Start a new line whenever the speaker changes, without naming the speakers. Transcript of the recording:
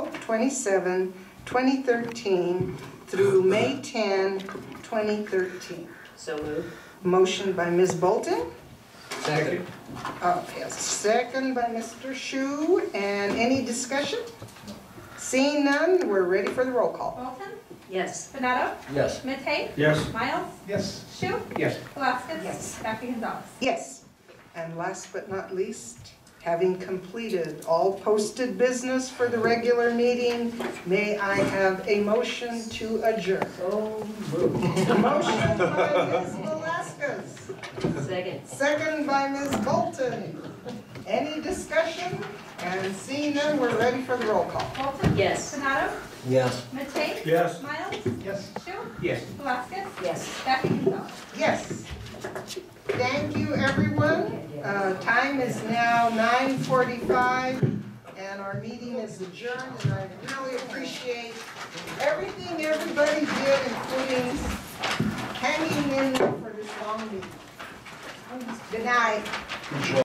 27, 2013 through May 10, 2013.
So moved.
Motion by Ms. Bolton,
Second.
uh, yes, second by Mr. Shu, and any discussion? Seeing none, we're ready for the roll call.
Bolton?
Yes.
Benado?
Yes.
Matei?
Yes.
Miles?
Yes.
Shu?
Yes.
Velazquez?
Yes.
Dr. Gonzalez?
Yes. And last but not least, having completed all posted business for the regular meeting, may I have a motion to adjourn?
So moved.
Motion by Ms. Velazquez,
Second.
second by Ms. Bolton. Any discussion? And seeing none, we're ready for the roll call.
Bolton?
Yes.
Benado?
Yes.
Matei?
Yes.
Miles?
Yes.
Shu?
Yes.
Velazquez?
Yes.
Dr. Gonzalez?
Yes. Thank you, everyone. Uh, Time is now 9:45, and our meeting is adjourned, and I really appreciate everything everybody did, including hanging in for this long meeting. Good night.